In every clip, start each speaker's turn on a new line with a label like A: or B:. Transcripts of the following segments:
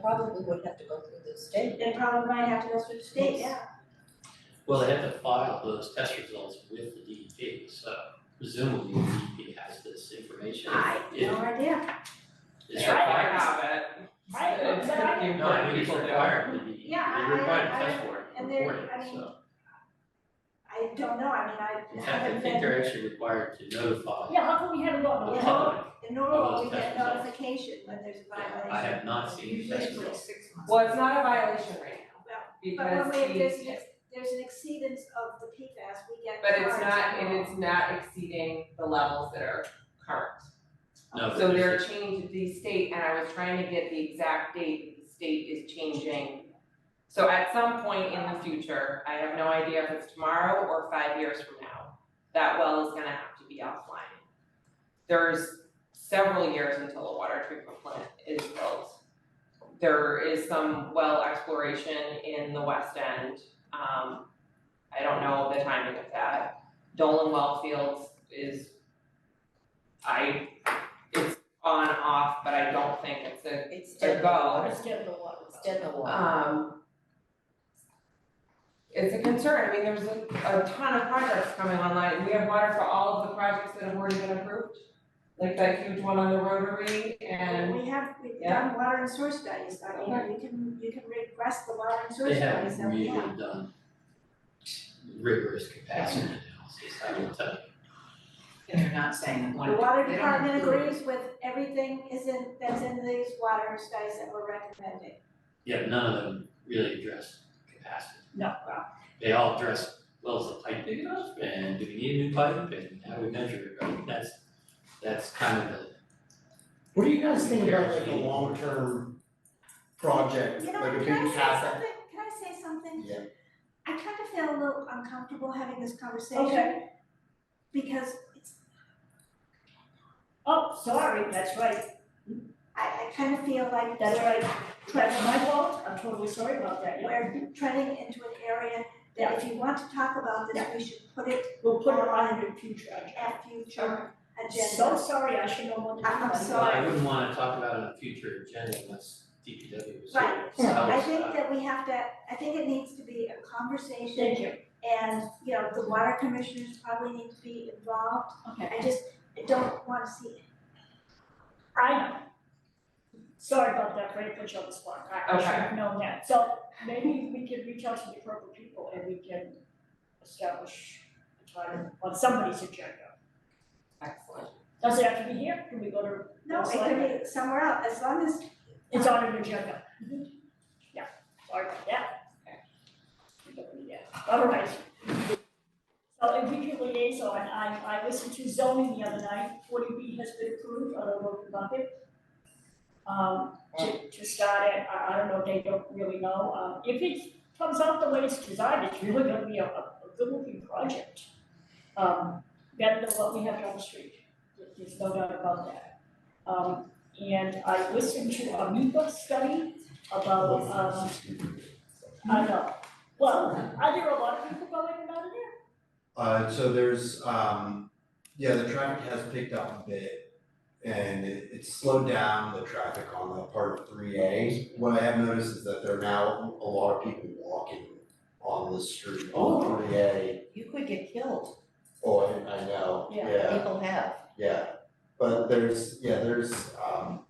A: probably would have to go through the state.
B: They probably might have to go through the state, yeah.
C: Well, they have to file those test results with the DEP, so presumably the DEP has this information.
B: I, no
C: If
B: idea.
C: It's
D: I might
C: required.
D: have it.
B: I-
D: It's
B: but I-
D: pretty
C: No, I mean,
D: important
C: it's
D: people to-
C: required, to be-
B: Yeah, I-
C: they require
B: I-
C: a test board
B: and they're-
C: reporting,
B: I mean,
C: so.
B: I don't know, I mean, I
C: In fact, I
B: haven't
C: think
B: been,
C: they're actually required to notify
E: Yeah, how come we haven't
C: the
E: gotten
B: Yeah.
E: one?
C: public.
B: in Norway,
C: those
B: we
C: test
B: get
C: results.
B: notification when there's a violation.
C: I have not seen test
A: Usually it's
C: results.
A: like six months.
D: Well, it's not a violation right now,
B: But when
D: because
B: we,
D: he-
B: there's an, ex- there's an exceedance of the PFAS, we get
D: but it's
B: charged.
D: not, and it's not exceeding the levels that are current.
C: No, but
D: So they're
C: there's a-
D: changing the state, and I was trying to get the exact date that the state is changing. So at some point in the future, I have no idea if it's tomorrow or five years from now, that well is gonna have to be offline. There's several years until a water treatment plant is built. There is some well exploration in the west end, um, I don't know the timing of that. Dolan Well Fields is, I, it's on off, but I don't think it's a
A: It's
D: They're
A: dead in the water,
D: gone.
A: it's dead in the water, it's dead in the water.
D: um. It's a concern, I mean, there's a, a ton of projects coming online, and we have water for all of the projects that have already been approved. Like that huge one on the Rotary and,
B: We have, we've
D: Yeah.
B: done water and source studies, I mean, you can, you can request the water and source
C: They
B: studies
C: haven't
B: that we
C: really
B: have.
C: done rigorous capacity analysis, I will tell you.
A: And they're not saying that one.
B: The water
A: they don't
B: department
A: include it.
B: agrees with everything is in, that's in these water studies that we're recommending.
C: Yeah, none of them really address capacity.
A: No.
C: They all address, well, is the pipe big enough, and do we need a new pipe, and how do we measure it, right? That's, that's kind of the,
F: What do you guys think about like a long-term project,
B: You
F: like a
B: know,
F: big
B: can I say
F: CapEx?
B: something, can I say something?
F: Yeah.
B: I kind of feel a little uncomfortable having this conversation.
E: Okay.
B: Because it's,
E: Oh, sorry, that's right,
B: I, I kind of feel like
E: that's
B: we're
E: right, that's my fault, I'm totally sorry about that, yeah.
B: we're treading into an area that if you want to talk about this, we should put it
E: We'll put it on in the future, I
B: at future agenda.
E: so sorry, I should know what to do.
B: I'm
C: well,
B: sorry.
C: I wouldn't wanna talk about it on a future agenda unless DPW was here,
B: Right.
C: so I
B: I
C: was,
B: think
C: uh,
B: that we have to, I think it needs to be a conversation.
E: Thank you.
B: And, you know, the water commissioners probably need to be involved.
A: Okay.
B: I just don't wanna see
E: I know. Sorry about that, Great, put you on the spot, I I should have known that, so maybe we can reach out to the appropriate people and we can establish a time on somebody's agenda.
D: excellent,
E: Does it have to be here, can we go to,
B: No, it could be somewhere else, as long as,
E: it's on an agenda? Yeah, sorry about that. We don't need that. All right. So if we can liaison, I, I listened to zoning the other night, forty B has been approved on a local market. Um, to, to start at, I, I don't know, they don't really know, um, if it comes out the way it's designed, it's really gonna be a, a, a good looking project. Um, better than what we have down the street, There- there's no doubt about that. Um, and I listened to a MIPA study about, um, I know, well, are there a lot of people going in and out of there?
G: Uh, so there's, um, yeah, the traffic has picked up a bit. And it, it's slowed down the traffic on the part of three A. What I have noticed is that there are now a lot of people walking on the street
A: Oh.
G: on three A.
A: You could get killed,
G: Oh, I, I know,
E: Yeah.
G: yeah,
A: people have.
G: yeah. But there's, yeah, there's, um,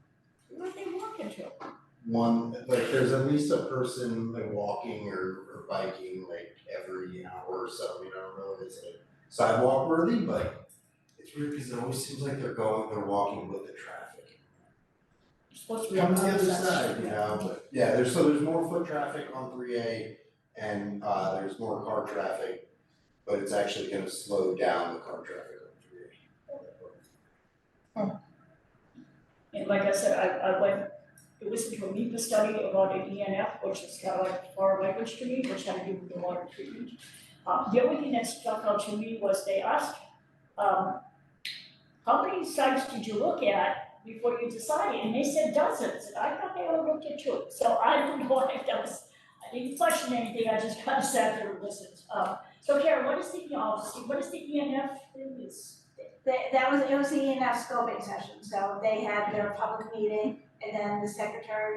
A: Where they walk into?
G: one, like, there's at least a person like walking or, or biking like every hour or so, you know, I don't know, it's like sidewalk worthy, but it's weird because it always seems like they're going, they're walking with the traffic.
E: You're supposed to be
G: Come
E: on
G: to the other
E: that
G: side, you know, but yeah, there's, so there's more foot traffic on three A and uh there's more car traffic, but it's actually gonna slow down the car traffic on three A.
E: And like I said, I, I went, I listened to a MIPA study about an ENF, which is kind of like foreign language to me, which had to do with the water treatment. Uh, the only thing that stuck out to me was they asked, um, how many sites did you look at before you decided? And they said dozens, and I thought they all looked at two. So I don't know if that was, I didn't question anything, I just kind of sat there and listened. Uh, so Karen, what is the, policy? what is the ENF thing is?
B: that, that E was, it was the ENF scoping session, so they had their public meeting, and then the secretary